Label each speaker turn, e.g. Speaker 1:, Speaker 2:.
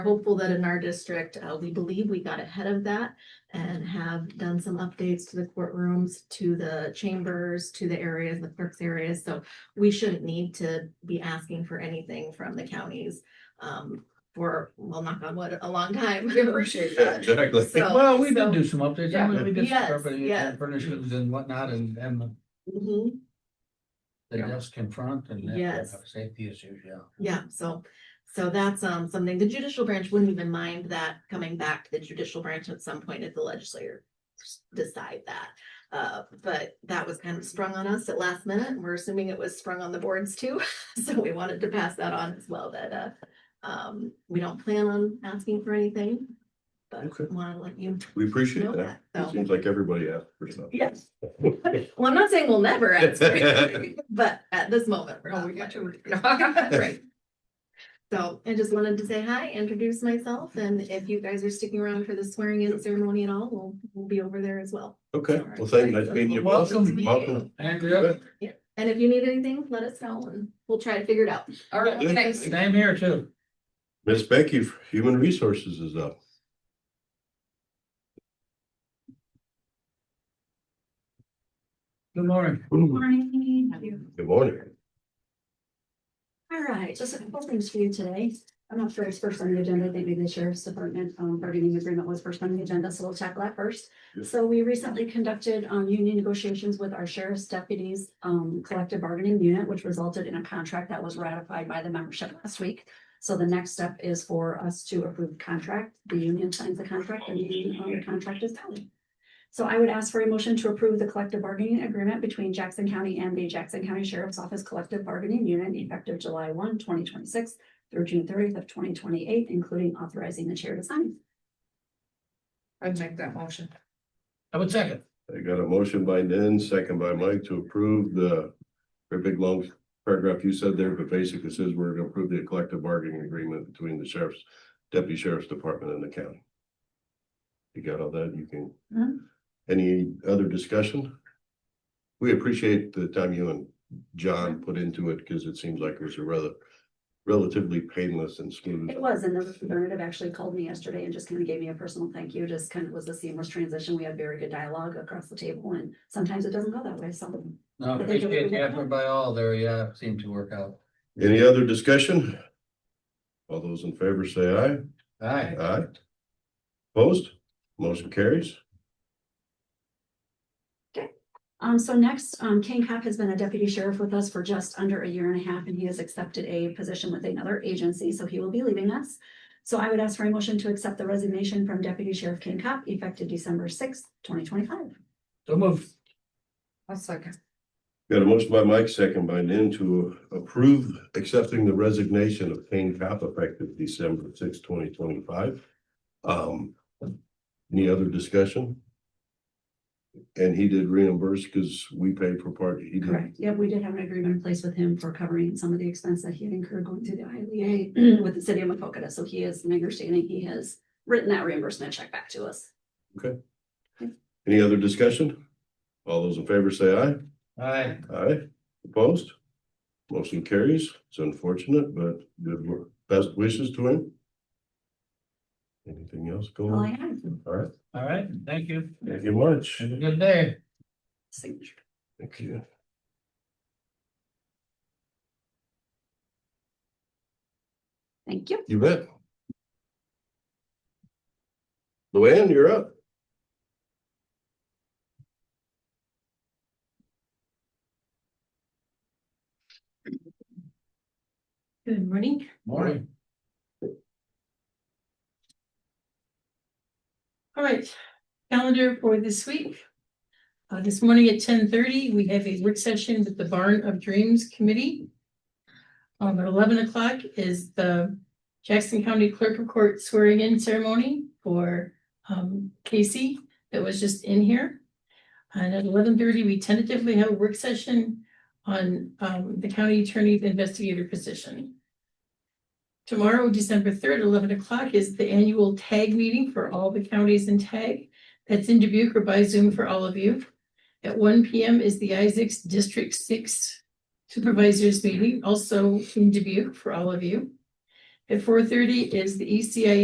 Speaker 1: hopeful that in our district, uh, we believe we got ahead of that and have done some updates to the courtrooms, to the chambers, to the areas, the clerks areas. So we shouldn't need to be asking for anything from the counties um, for, well, knock on wood, a long time.
Speaker 2: We appreciate
Speaker 3: Yeah,
Speaker 2: that.
Speaker 3: Exactly.
Speaker 1: So-
Speaker 4: Well, we did
Speaker 1: so-
Speaker 4: do some updates, I mean, we did
Speaker 1: Yes,
Speaker 4: some carpeting
Speaker 1: yes.
Speaker 4: and furnishings and whatnot and, and
Speaker 1: Mhm.
Speaker 4: the
Speaker 2: Yeah.
Speaker 4: desk in front and that-
Speaker 1: Yes.
Speaker 4: safety issues, yeah.
Speaker 1: Yeah,
Speaker 3: Mm-hmm.
Speaker 1: so, so that's um, something, the judicial branch wouldn't even mind that coming back to the judicial branch at some point if the legislature decide that. Uh, but that was kind of sprung on us at last minute. and We're assuming it was sprung on the boards too. So we wanted to pass that on as well that, uh, um, we don't plan on asking for anything,
Speaker 3: Okay.
Speaker 1: but want to let you
Speaker 3: We
Speaker 1: know
Speaker 3: appreciate that.
Speaker 1: that. So,
Speaker 3: Seems like everybody asked for something.
Speaker 1: yes. Well, I'm not saying we'll never ask, for anything, but at this moment. we're not
Speaker 2: Oh, we got
Speaker 1: planning.
Speaker 2: to. Right.
Speaker 1: Right. So I just wanted to say hi, introduce myself, and if you guys are sticking around for the swearing in ceremony at all, we'll, we'll be over there as well.
Speaker 3: Okay, well, thank you. Nice meeting you.
Speaker 4: Welcome.
Speaker 3: Welcome.
Speaker 4: Andrea,
Speaker 1: And if you need anything, let us know and we'll try to figure it out.
Speaker 2: All right, thanks.
Speaker 4: same here too.
Speaker 3: Miss Becky, from Human Resources is up.
Speaker 4: Good morning.
Speaker 3: Good
Speaker 1: Morning.
Speaker 3: morning.
Speaker 5: All right, just a couple things for you today. I'm not sure it's first on the agenda, I think maybe the sheriff's department, um, bargaining agreement was first on the agenda, so we'll check that first.
Speaker 3: Yes.
Speaker 5: So we recently conducted, um, union negotiations with our sheriff's deputies, um, collective bargaining unit, which resulted in a contract that was ratified by the membership last week. So the next step is for us to approve contract, the union signs the contract and the, um, contract is valid. So I would ask for a motion to approve the collective bargaining agreement between Jackson County and the Jackson County Sheriff's Office Collective Bargaining Unit effective July 1, 2026, through June thirtieth of twenty twenty-eight, including authorizing the chair to sign.
Speaker 2: I'd make that motion.
Speaker 4: I would second.
Speaker 3: I got a motion by Nan, second by Mike to approve the very big long paragraph you said there, but basically says we're gonna approve the collective bargaining agreement between the sheriff's, deputy sheriff's department and the county. You got all that? You
Speaker 5: Mhm.
Speaker 3: can. Any other discussion? We appreciate the time you and John put into it because it seems like it was a rather relatively painless and smooth.
Speaker 5: It was, and the representative actually called me yesterday and just kind of gave me a personal thank you, just kind of was a seamless transition. We had very good dialogue across the table, and sometimes it doesn't go that way, so.
Speaker 4: No,
Speaker 5: I think it
Speaker 4: appreciate
Speaker 5: would-
Speaker 4: the effort by all there, yeah, it seemed to work out.
Speaker 3: Any other discussion? All those in favor say aye.
Speaker 4: Aye.
Speaker 3: Aye. Opposed? Motion carries.
Speaker 5: Um, so next, um, King Cobb has been a deputy sheriff with us for just under a year and a half, and he has accepted a position with another agency, so he will be leaving us. So I would ask for a motion to accept the resignation from Deputy Sheriff King Cobb effective December sixth, twenty twenty-five.
Speaker 4: So move.
Speaker 2: I'll second.
Speaker 3: Got a motion by Mike, second by Nan to approve accepting the resignation of Kane Cop effective December sixth, twenty twenty-five. Um, any other discussion? And he did reimburse because we paid for part, he did.
Speaker 5: Correct. Yep, we did have an agreement in place with him for covering some of the expense that he had incurred going through the ILEA with the city of Macokota, so he is, my understanding, he has written that reimbursement check back to us.
Speaker 3: Any other discussion? All those in favor say aye.
Speaker 4: Aye.
Speaker 3: Aye, opposed? Motion carries. It's unfortunate, but good work. Best wishes to him. Anything else going
Speaker 5: All I
Speaker 3: on?
Speaker 5: have.
Speaker 3: All right,
Speaker 4: All right, thank you.
Speaker 3: thank you much.
Speaker 4: Have a good day.
Speaker 5: Signature.
Speaker 3: Thank you.
Speaker 5: Thank you.
Speaker 3: You bet. Luann, you're up.
Speaker 1: Good morning.
Speaker 4: Morning.
Speaker 6: All right, calendar for this week. Uh, this morning at ten thirty, we have a work session with the Barn of Dreams Committee. Um, at eleven o'clock is the Jackson County Clerk of Court swearing in ceremony for um Casey that was just in here. And at eleven thirty, we tentatively have a work session on um, the county attorney's investigator position. Tomorrow, December third, eleven o'clock is the annual tag meeting for all the counties in tag. That's in Dubuque or by Zoom for all of you. At one P M is the Isaacs District Six Supervisors Meeting, also in Dubuque for all of you. At four thirty is the E ECIA